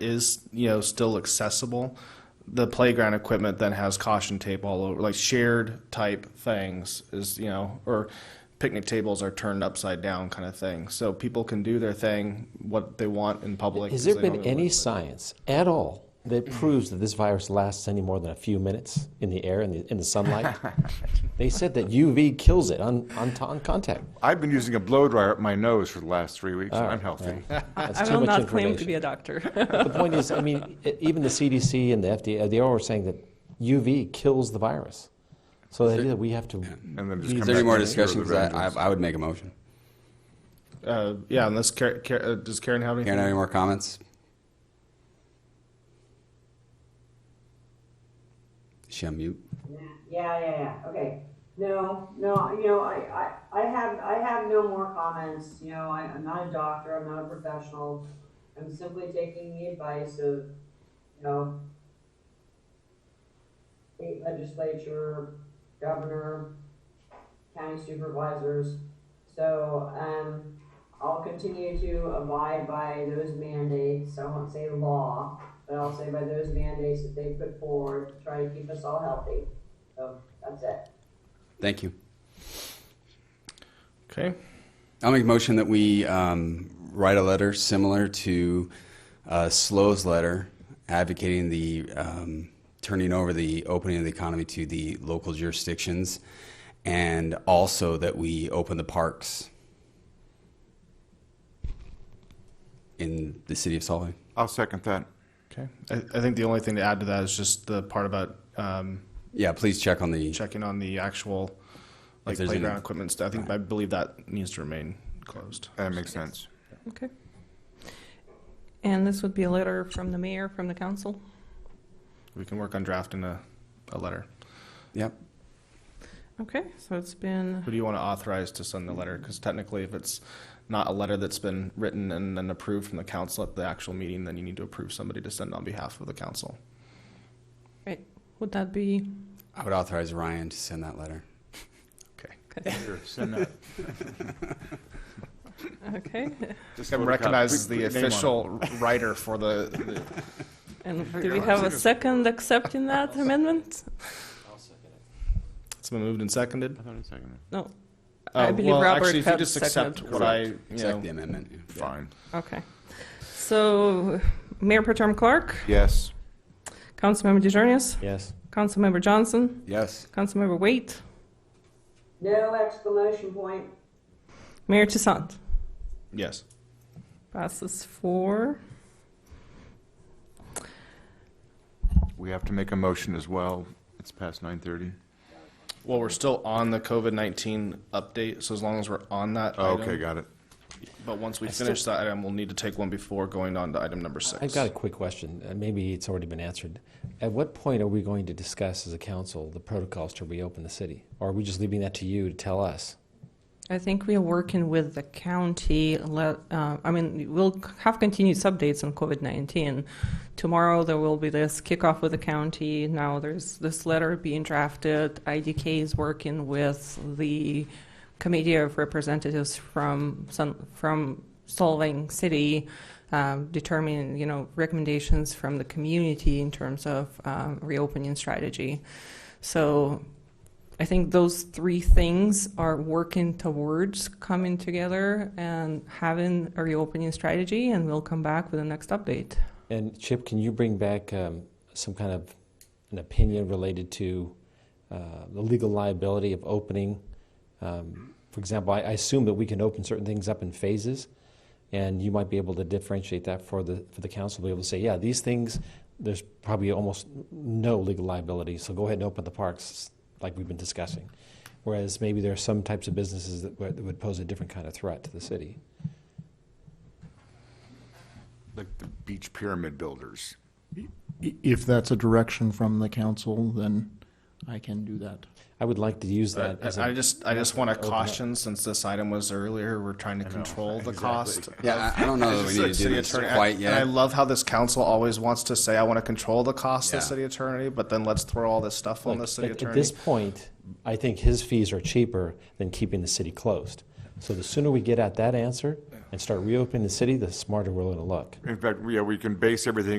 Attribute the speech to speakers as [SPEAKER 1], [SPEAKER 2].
[SPEAKER 1] is, you know, still accessible, the playground equipment then has caution tape all over, like shared type things is, you know, or picnic tables are turned upside down kind of thing. So people can do their thing, what they want in public.
[SPEAKER 2] Has
[SPEAKER 1] 'cause
[SPEAKER 2] there
[SPEAKER 1] they
[SPEAKER 2] been
[SPEAKER 1] don't get
[SPEAKER 2] any
[SPEAKER 1] looked at.
[SPEAKER 2] science at all that proves that this virus lasts any more than a few minutes in the air, in the, in the sunlight? they said that UV kills it on, on, t- on contact.
[SPEAKER 3] I've been using a blow dryer up my nose for the last three weeks. I'm healthy.
[SPEAKER 2] That's
[SPEAKER 4] I
[SPEAKER 2] too
[SPEAKER 4] will
[SPEAKER 2] much
[SPEAKER 4] not claim to
[SPEAKER 2] information.
[SPEAKER 4] be a doctor.
[SPEAKER 2] The point is, I mean, e- even the CDC and the FDA, they all were saying that UV kills the virus. So the idea that we have to,
[SPEAKER 3] And then just
[SPEAKER 2] Is
[SPEAKER 3] come
[SPEAKER 5] Is there any
[SPEAKER 3] back
[SPEAKER 5] more
[SPEAKER 3] and cure
[SPEAKER 5] discussion?
[SPEAKER 3] the
[SPEAKER 5] 'Cause I,
[SPEAKER 3] vengeance.
[SPEAKER 5] I, I would make a motion.
[SPEAKER 1] Uh, yeah, unless, Karen, uh does Karen have anything?
[SPEAKER 5] Karen, any more comments? She on mute?
[SPEAKER 6] Yeah, yeah, yeah, okay. No, no, you know, I, I, I have, I have no more comments, you know, I, I'm not a doctor, I'm not a professional. I'm simply taking the advice of, you know, state legislature, governor, county supervisors. So, um, I'll continue to abide by those mandates, I won't say law, but I'll say by those mandates that they put forward, to try to keep us all healthy. So, that's it.
[SPEAKER 5] Thank you.
[SPEAKER 1] Okay.
[SPEAKER 5] I'll make a motion that we um, write a letter similar to uh, Slow's letter advocating the um, turning over the opening of the economy to the local jurisdictions and also that we open the parks in the city of Salt Lake.
[SPEAKER 3] I'll second that.
[SPEAKER 1] Okay. I, I think the only thing to add to that is just the part about, um,
[SPEAKER 5] Yeah, please check on the.
[SPEAKER 1] checking on the actual, like
[SPEAKER 5] there's any-
[SPEAKER 1] playground equipment stuff. I think, I believe that needs to remain closed.
[SPEAKER 3] That makes sense.
[SPEAKER 4] Okay. And this would be a letter from the mayor, from the council?
[SPEAKER 1] We can work on drafting a, a letter.
[SPEAKER 5] Yep.
[SPEAKER 4] Okay, so it's been,
[SPEAKER 1] Who do you want to authorize to send the letter? Because technically, if it's not a letter that's been written and then approved from the council at the actual meeting, then you need to approve somebody to send on behalf of the council.
[SPEAKER 4] right, would that be,
[SPEAKER 5] I would authorize Ryan to send that letter.
[SPEAKER 1] Okay.
[SPEAKER 4] okay?
[SPEAKER 3] Just
[SPEAKER 1] Kevin recognizes the official writer for the, the-
[SPEAKER 4] And do we have a second accepting that amendment?
[SPEAKER 1] it's been moved and seconded.
[SPEAKER 4] No. I
[SPEAKER 1] Uh,
[SPEAKER 4] believe
[SPEAKER 1] well,
[SPEAKER 4] Robert
[SPEAKER 1] Actually, if you
[SPEAKER 4] had
[SPEAKER 1] just accept
[SPEAKER 4] seconded.
[SPEAKER 1] what I, you
[SPEAKER 5] Accept
[SPEAKER 1] know,
[SPEAKER 5] the amendment. yeah.
[SPEAKER 3] Fine.
[SPEAKER 4] Okay. So Mayor Protem Clark,
[SPEAKER 3] Yes.
[SPEAKER 4] Councilmember DeJarnius,
[SPEAKER 2] yes.
[SPEAKER 4] Councilmember Johnson,
[SPEAKER 5] Yes.
[SPEAKER 4] Councilmember Waite,
[SPEAKER 6] No exclamation point.
[SPEAKER 4] Mayor Toussaint.
[SPEAKER 1] yes.
[SPEAKER 4] Passes four.
[SPEAKER 3] We have to make a motion as well. It's past 9:30.
[SPEAKER 1] Well, we're still on the COVID-19 update, so as long as we're on that
[SPEAKER 3] Oh, Okay,
[SPEAKER 1] item-
[SPEAKER 3] got it.
[SPEAKER 1] But once we finish that item, we'll need to take one before going on to item number six.
[SPEAKER 2] I've got a quick question. Uh, Maybe it's already been answered. At what point are we going to discuss as a council the protocols to reopen the city? Or are we just leaving that to you to tell us?
[SPEAKER 4] I think we are working with the county. le- uh, I mean, we'll c- have continuous updates on COVID-19. Tomorrow, there will be this kickoff with the county. Now, there's this letter being drafted. IDK is working with the committee of representatives from, Sun- from Salt Lake City, um, determining, you know, recommendations from the community in terms of um, reopening strategy. So I think those three things are working towards coming together and having a reopening strategy, and we'll come back with the next update.
[SPEAKER 2] And Chip, can you bring back um, some kind of an opinion related to uh, the legal liability of opening? Um, for example, I, I assume that we can open certain things up in phases, and you might be able to differentiate that for the for the council, be able to say, yeah, these things, there's probably almost no legal liability, so go ahead and open the parks like we've been discussing. Whereas maybe there are some types of businesses that would, that would pose a different kind of threat to the city.
[SPEAKER 3] Like the beach pyramid builders.
[SPEAKER 7] I- If that's a direction from the council, then I can do that.
[SPEAKER 2] I would like to use
[SPEAKER 1] I
[SPEAKER 2] that. as a
[SPEAKER 1] I just, I just want to
[SPEAKER 2] up.
[SPEAKER 1] caution, since this item was earlier, we're trying to control the cost.
[SPEAKER 5] Yeah, I, I don't know that we need to do this quite
[SPEAKER 1] And I
[SPEAKER 5] yet.
[SPEAKER 1] love how this council always wants to say, I want to control the cost of
[SPEAKER 5] Yeah.
[SPEAKER 1] city attorney, but then let's throw all this stuff on
[SPEAKER 2] Look,
[SPEAKER 1] the city
[SPEAKER 2] at-
[SPEAKER 1] attorney.
[SPEAKER 2] At this point, I think his fees are cheaper than keeping the city closed. So the sooner we get at that answer, and start reopening the city, the smarter we're going to look.
[SPEAKER 3] In fact, yeah, we can base everything